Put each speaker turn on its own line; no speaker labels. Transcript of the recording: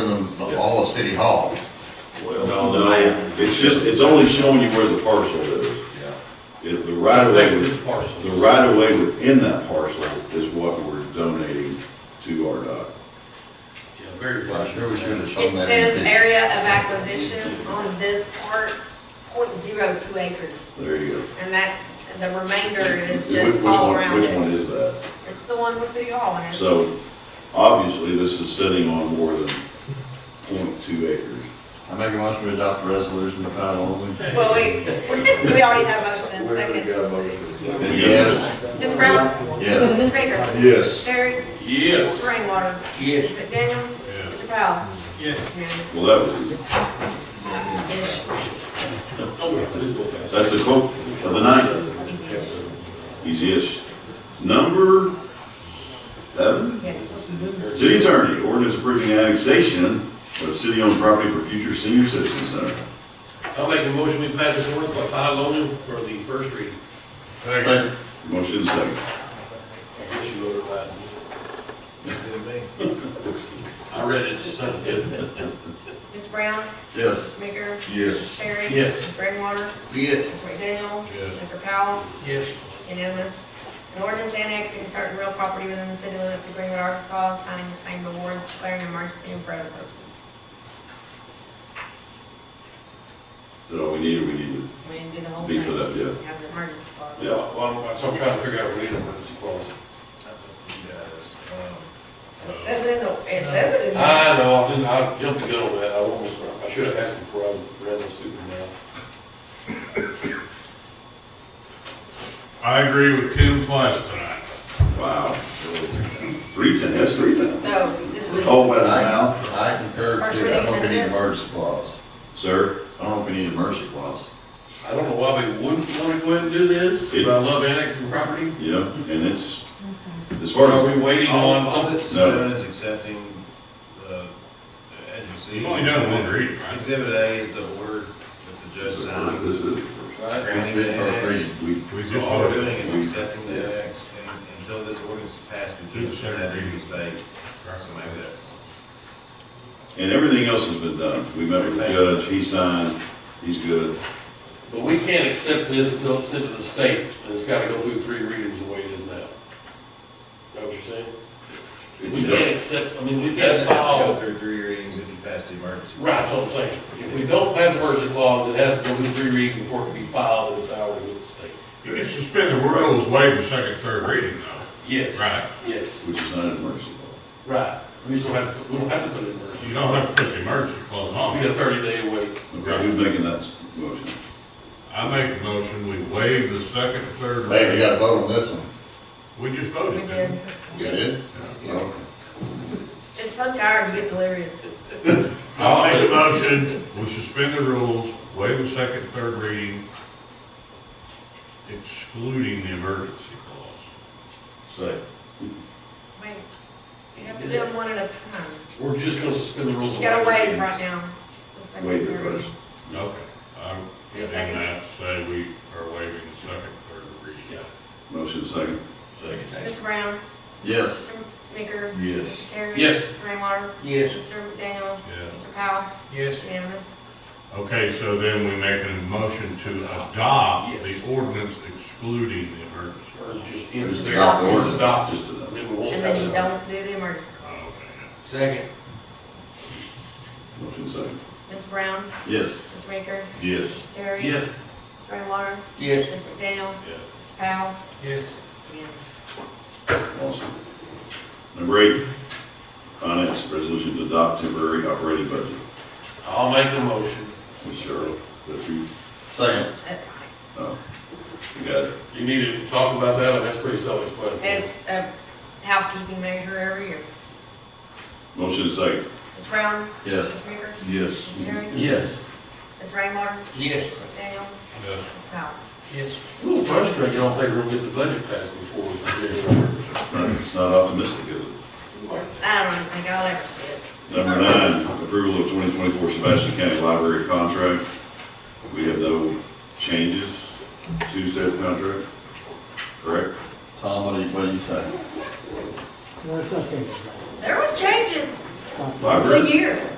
in the all of City Hall.
Well, no, it's just, it's only showing you where the parcel is. It- The right of way,
Affected parcels.
the right of way within that parcel is what we're donating to RDOT.
Yeah, very
I
much.
sure wish you'd have shown
It
that.
says area of acquisition on this part, point zero two acres.
There you go.
And that, the remainder is
Which-
just
which
all
one-
around
Which one
it.
is that?
It's the one with City Hall in it.
So obviously, this is sitting on more than 0.2 acres.
I make a motion to adopt the resolution by title only.
Well, we, we already have a motion and second.
Yes.
Mr. Brown?
Yes.
Ms. Baker?
Yes.
Terry?
Yes.
Mr. Rainwater?
Yes.
Mr. McDaniel?
Yes.
Mr. Powell?
Yes.
Yes.
Well, that was easy. That's the quote of the night. Easiest. Number seven?
Yes.
City Attorney, ordinance approving annexation of city-owned property for future senior citizen center.
I'll make a motion, we pass this ordinance by title only for the first reading.
Second.
Motion is second.
I guess you voted right. I read it, it's not good.
Mr. Brown?
Yes.
Baker?
Yes.
Terry?
Yes.
Mr. Rainwater?
Yes.
Mr. McDaniel?
Yes.
Mr. Powell?
Yes.
Unanimous. An ordinance annexing certain real property within the city limits of Greenwood, Arkansas, signing the same awards, declaring an emergency and for other purposes.
Is that all we need, or we need
We didn't do the
to
whole
be
thing.
for that, yeah?
Has an emergency clause.
Yeah.
Well, I'm- so I'm trying to figure out what an emergency clause.
That's up to you guys.
It says it in the, it says it in the.
Um, uh, I know, I didn't, I jumped the gun on that, I almost, I should have asked before I read this stupid now.
I agree with Tim twice tonight.
Wow. Three ten, that's three ten.
So this is just,
Oh, well, now,
I concur
First
too. I
reading,
don't think we
that's
need
it.
emergency clause.
sir, I don't know if we need a mercy clause.
I don't know why we wouldn't want to go ahead and do this, but I love annexing property.
You know, and it's, as
Or
far
are
as,
we waiting on
All
something?
that's
No.
doing is accepting the, as you see.
You've only done one reading, right?
Exhibit A is the order that the judge signed.
this is the first.
First
granting the
reading, first
annex.
reading.
We,
So all we're doing is accepting the annex, and until this ordinance is passed, we can't send that to the state. So maybe that,
and everything else has been done. We met with the judge, he signed, he's good.
But we can't accept this until it's sent to the state, and it's gotta go through three readings the way it is now. Know what you're saying? We can't accept, I mean, we
it
can't
doesn't have to go
file,
through three readings if you pass the emergency.
right, that's what I'm saying. If we don't pass the mercy clause, it has to go through three readings before it can be filed and it's out with the state.
You can suspend the rules, waive the second, third reading though,
Yes.
right?
Yes,
Which is not an emergency clause.
right. We just don't have, to. we don't have to put it in mercy.
You don't have to put the emergency clause
We
on.
got a thirty day wait.
Okay, who's making that motion?
I make a motion, we waive the second, third
Hey, we
reading.
gotta vote on this one.
We just
we
voted.
did.
didn't
You did?
we?
Okay.
Just so tired, you get delirious.
I'll make a motion, we suspend the rules, waive the second, third reading, excluding the emergency clause.
Second.
Wait, you have to do them one at a time.
We're just gonna suspend the rules.
You
and
gotta
waive
wait
the
right
readings.
now. The second
Waive it
period.
first.
Okay, I'm
Your
getting
second?
that, say we are waiving the second, third reading.
Motion second.
Mr. Brown?
Yes.
Mr. Maker?
Yes.
Mr. Terry?
Yes.
Mr. Rainwater?
Yes.
Mr. McDaniel?
Yes.
Mr. Powell?
Yes.
Unanimous.
Okay, so then we make a motion to adopt
Yes.
the ordinance excluding the emergency.
Or
clause.
just, you know,
Just
just
adopt it.
adopt it. Adopt it.
Just adopt.
And then we won't
And
have
then you
to-
don't do the emergency clause.
Oh, Okay.
Second.
Motion second.
Mr. Brown?
Yes.
Mr. Maker?
Yes.
Mr. Terry?
Yes.
Mr. Rainwater?
Yes.
Mr. McDaniel?
Yes.
Mr. Powell?
Yes.
Unanimous.
Awesome. Number eight, finance resolution to adopt temporary operating budget.
I'll make the motion.
Ms. Cheryl, that you,
Second.
That's fine.
oh, you got it.
You need to talk about that, and that's pretty self-explanatory.
It's a housekeeping measure every year.
Motion second.
Mr. Brown?
Yes.
Mr. Maker?
Yes.
Mr. Terry?
Yes.
Mr. Rainwater?
Yes.
Mr. McDaniel?
Yes.
Mr. Powell?
Yes. A little frustrating, I don't think we're gonna get the budget passed before we get
It's not- It's not optimistic, is it?
it.
I don't even think I'll ever see it.
Number nine, approval of 2024 Sebastian County Library contract. We have no changes to said contract, correct?
Tom, what do you, what do you say?
There's no changes.
There was changes.
Library.
The year.